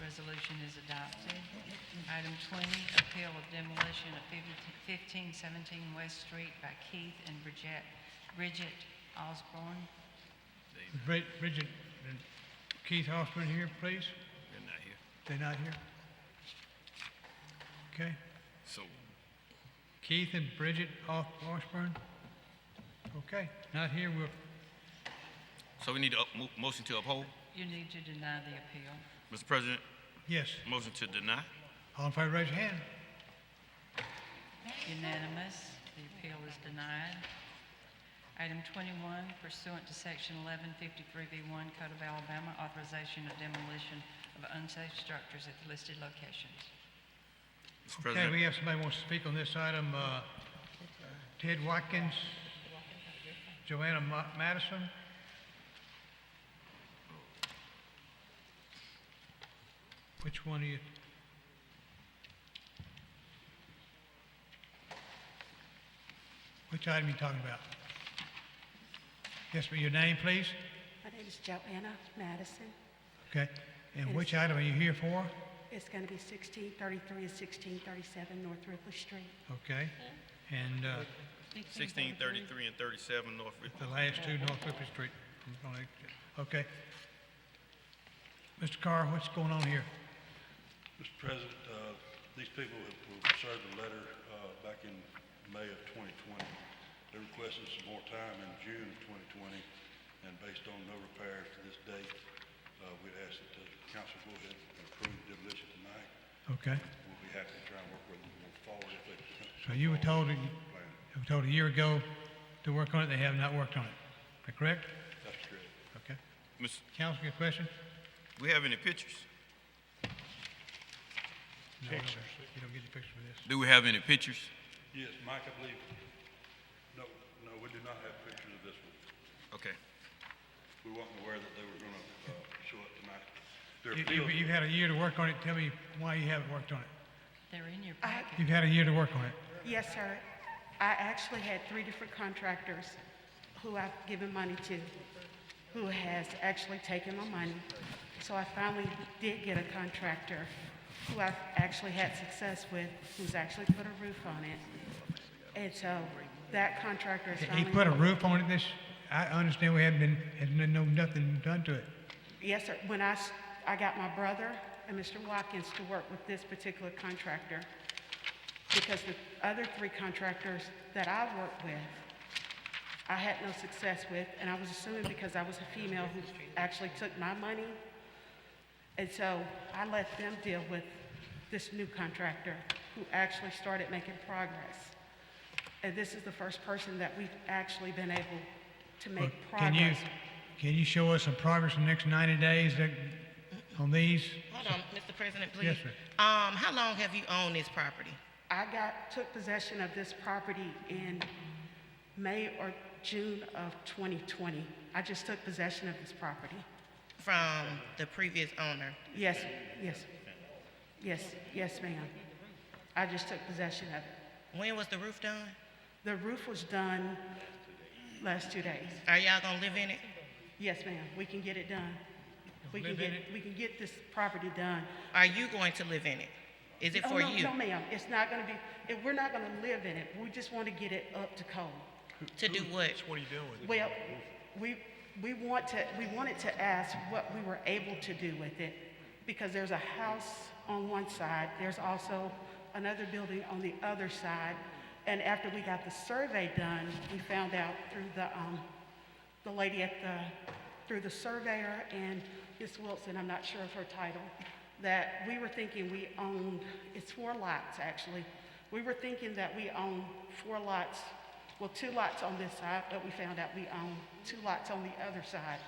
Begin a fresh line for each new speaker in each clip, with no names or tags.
resolution is adopted. Item 20, appeal of demolition of 1517 West Street by Keith and Bridget Bridget Osborne.
Brid- Bridget and Keith Hoffman here, please?
They're not here.
They're not here? Okay.
So,
Keith and Bridget Off Washburn? Okay, not here, we'll,
so we need to up, mo- motion to uphold.
You need to deny the appeal.
Mr. President,
yes.
motion to deny.
All in favor, raise your hand.
Unanimous, the appeal is denied. Item 21, pursuant to Section 1153B1 Code of Alabama, authorization of demolition of unsafe structures at listed locations.
Mr.
Okay,
President,
we have somebody wants to speak on this item, uh, Ted Watkins, Joanna Ma- Madison. Which one are you? Which item you talking about? Yes, but your name, please?
My name is Joanna Madison.
Okay, and which item are you here for?
It's going to be 1633 and 1637 North Ripley Street.
Okay, and, uh,
sixteen thirty-three and thirty-seven North Ridley.
The last two, North Clifford Street. Okay. Mr. Carr, what's going on here?
Mr. President, uh, these people have have served a letter uh, back in May of 2020. They requested some more time in June of 2020, and based on no repairs to this date, uh, we'd ask that the council go ahead and approve demolition tonight.
Okay,
We'll be happy to try and work with them going forward if they can.
so you were told, you were told a year ago to work on it, they have not worked on it. Is that correct?
That's correct.
Okay.
Miss,
Council, your question?
we have any pictures?
No, we don't. You don't get the picture for this.
Do we have any pictures?
Yes, Mike, I believe, no, no, we do not have pictures of this one.
Okay.
We weren't aware that they were going to show up tonight. Their
You-
appeal-
you- You've had a year to work on it, tell me why you haven't worked on it.
They're in your
I-
packet.
You've had a year to work on it.
Yes, sir. I actually had three different contractors who I've given money to, who has actually taken my money. So I finally did get a contractor who I've actually had success with, who's actually put a roof on it. And so that contractor is
He
finally...
put a roof on it this, I understand we haven't been, had been, no, nothing done to it.
Yes, sir. When I, s- I got my brother and Mr. Watkins to work with this particular contractor, because the other three contractors that I worked with, I had no success with, and I was assuming because I was a female who actually took my money. And so I let them deal with this new contractor who actually started making progress. And this is the first person that we've actually been able to
Well,
make
Can you,
progress.
can you show us some progress in the next 90 days that- on these?
Hold on, Mr. President, please.
Yes, ma'am.
Um, how long have you owned this property?
I got, took possession of this property in May or June of 2020. I just took possession of this property.
From the previous owner?
Yes, yes, yes, yes, ma'am. I just took possession of it.
When was the roof done?
The roof was done last two days.
Are y'all gonna live in it?
Yes, ma'am, we can get it done. We can
Live in
get,
it?
we can get this property done.
Are you going to live in it? Is it
Oh,
for
no,
you
No, ma'am, it's not gonna be, it- we're not gonna live in it. We just want to get it up to code.
to do what?
Well, we, we want to, we wanted to ask what we were able to do with it, because there's a house on one side, there's also another building on the other side. And after we got the survey done, we found out through the, um, the lady at the, through the surveyor and Miss Wilson, I'm not sure of her title, that we were thinking we owned, it's four lots, actually. We were thinking that we owned four lots, well, two lots on this side, but we found out we own two lots on the other side.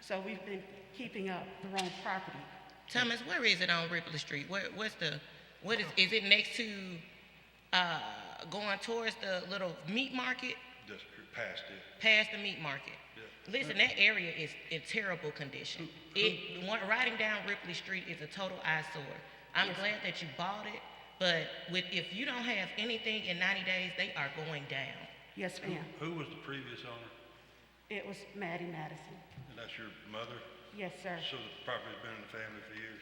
So we've been keeping up the wrong property.
Thomas, where is it on Ripley Street? Where, what's the, what is, is it next to, uh, going towards the little meat market?
That's cor- past it.
past the meat market. Listen, that area is in terrible condition. It, one- riding down Ripley Street is a total eyesore. I'm glad that you bought it, but with, if you don't have anything in ninety days, they are going down.
Yes, ma'am.
Who was the previous owner?
It was Maddie Madison.
And that's your mother?
Yes, sir.
So the property's been in the family for years?